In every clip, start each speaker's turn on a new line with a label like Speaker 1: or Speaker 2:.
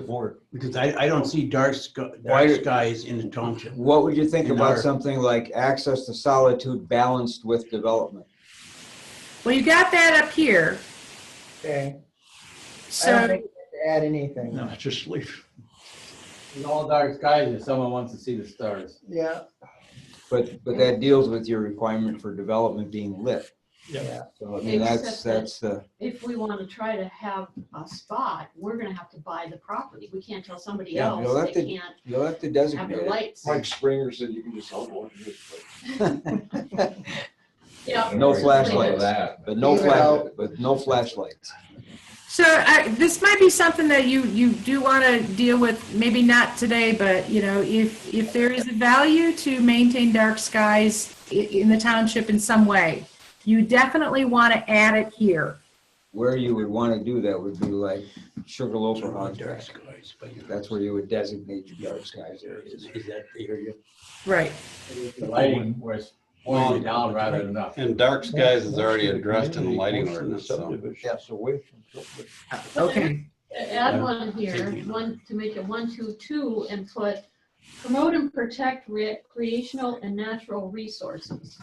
Speaker 1: support, because I, I don't see dark sky,
Speaker 2: Why-
Speaker 1: dark skies in the township.
Speaker 2: What would you think
Speaker 1: In
Speaker 2: about
Speaker 1: our-
Speaker 2: something like access to solitude balanced with development?
Speaker 3: Well, you got that up here,
Speaker 4: Okay, I don't
Speaker 3: so,
Speaker 4: think we have to add anything.
Speaker 1: No, it's just leave.
Speaker 5: It's all dark skies if someone wants to see the stars.
Speaker 4: Yeah,
Speaker 2: But, but that deals with your requirement for development being lit.
Speaker 1: Yeah.
Speaker 4: yeah.
Speaker 2: So I mean, that's,
Speaker 6: Except that-
Speaker 2: that's the,
Speaker 6: If we want to try to have a spot, we're gonna have to buy the property. We can't tell somebody
Speaker 2: Yeah, you'll
Speaker 6: else
Speaker 2: have
Speaker 6: they
Speaker 2: to
Speaker 6: can't
Speaker 2: you'll have to
Speaker 6: have
Speaker 2: designate
Speaker 6: their
Speaker 2: it.
Speaker 6: lights.
Speaker 7: Mike Springer said you can just help one.
Speaker 6: Yeah,
Speaker 2: No
Speaker 6: flashlights.
Speaker 2: But no
Speaker 4: Leave it
Speaker 2: flash,
Speaker 4: out.
Speaker 2: but no flashlights.
Speaker 3: so I, this might be something that you, you do want to deal with, maybe not today, but, you know, if, if there is a value to maintain dark skies i- in the township in some way, you definitely want to add it here.
Speaker 2: Where you would want to do that would be like Sugarloaf or Hog's
Speaker 1: Dark
Speaker 2: Back.
Speaker 1: skies. but you-
Speaker 2: That's where you would designate your dark skies
Speaker 1: Is
Speaker 2: areas.
Speaker 1: is that the area?
Speaker 3: Right.
Speaker 5: The lighting where it's pointed down rather than up.
Speaker 8: And dark skies is already addressed in the lighting ordinance, so.
Speaker 1: Yes, away from. subdivision.
Speaker 3: Okay.
Speaker 6: Add one here, one, to make it one, two, two, and put promote and protect recreational and natural resources.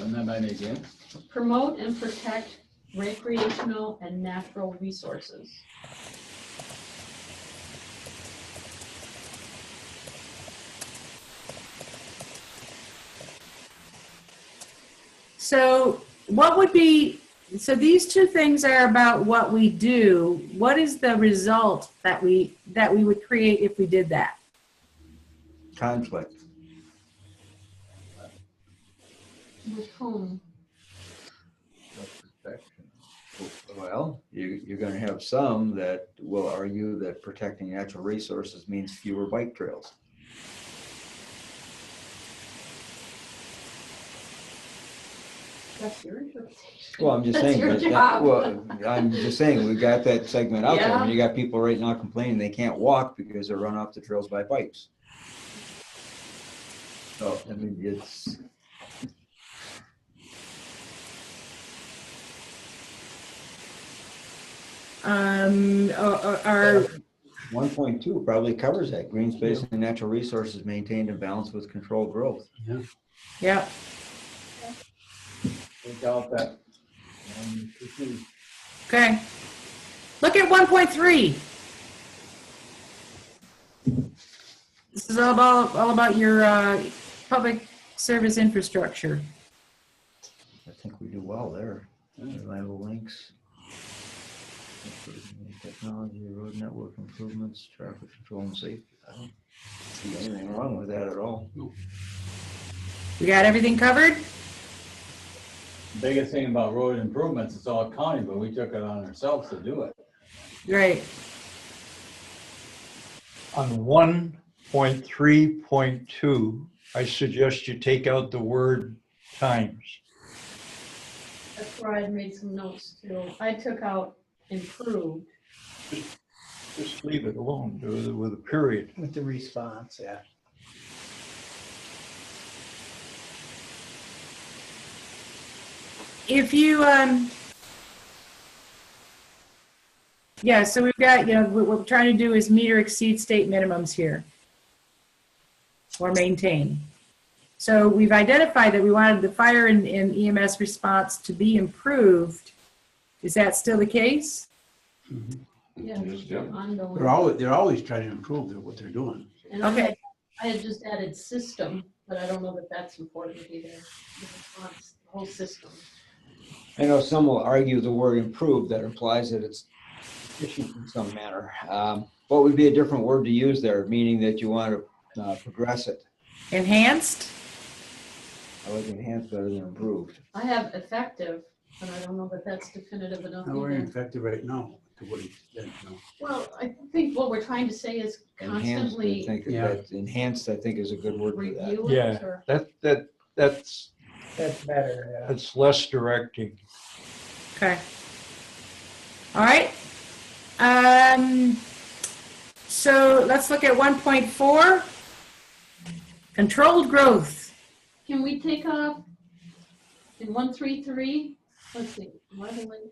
Speaker 5: And then by again,
Speaker 6: Promote and protect recreational and natural resources.
Speaker 3: So what would be, so these two things are about what we do. What is the result that we, that we would create if we did that?
Speaker 2: Conflict.
Speaker 6: With whom?
Speaker 2: Well, you, you're going to have some that will argue that protecting natural resources means fewer bike trails.
Speaker 6: That's your interpretation.
Speaker 2: Well, I'm just
Speaker 6: That's
Speaker 2: saying,
Speaker 6: your
Speaker 2: but that,
Speaker 6: job.
Speaker 2: well, I'm just saying, we've got that segment out there.
Speaker 6: Yeah.
Speaker 2: and You got people right now complaining they can't walk because they're run off the trails by bikes. So, I mean, it's,
Speaker 3: Um, or, or,
Speaker 2: one point two probably covers that. Green space and natural resources maintained and balanced with controlled growth.
Speaker 3: yeah,
Speaker 5: take out that. um, this is-
Speaker 3: okay. Look at one point three. This is all about, all about your, uh, public service infrastructure.
Speaker 2: I think we do well there. Reliable links. Technology, road network improvements, traffic control and safety. I don't see anything wrong with that at all.
Speaker 3: We got everything covered?
Speaker 5: Biggest thing about road improvements, it's all county, but we took it on ourselves to do it.
Speaker 3: Great.
Speaker 9: On one point three point two, I suggest you take out the word times.
Speaker 6: That's where I made some notes too. I took out improved.
Speaker 9: Just leave it alone with- with a period.
Speaker 4: With the response, yeah.
Speaker 3: if you, um, yeah, so we've got, you know, what what we're trying to do is meet or exceed state minimums here. Or maintain. So we've identified that we wanted the fire and and EMS response to be improved. Is that still the case?
Speaker 6: Yeah,
Speaker 7: Yes, yeah.
Speaker 6: ongoing.
Speaker 1: They're always, they're always trying to improve their- what they're doing.
Speaker 6: And I
Speaker 3: Okay.
Speaker 6: had- I had just added system, but I don't know that that's important either. The response, the Whole system.
Speaker 2: I know some will argue the word improve that implies that it's efficient in some manner. Um, What would be a different word to use there, meaning that you want to uh, progress it?
Speaker 3: Enhanced?
Speaker 2: I like enhance better than improved.
Speaker 6: I have effective, but I don't know that that's definitive enough
Speaker 1: Now, we're
Speaker 6: either.
Speaker 1: infected right now to what extent, you know.
Speaker 6: Well, I think what we're trying to say is
Speaker 2: Enhanced, I
Speaker 6: constantly
Speaker 2: think, that-
Speaker 1: Yeah.
Speaker 2: that- enhanced, I think is a good word for that.
Speaker 6: review
Speaker 9: Yeah.
Speaker 6: it or
Speaker 9: That, that, that's,
Speaker 4: That's better, yeah.
Speaker 9: that's less directing.
Speaker 3: Okay. All right. Um, so let's look at 1.4. Controlled growth.
Speaker 6: can we take off in one, three, three? Let's see, leveling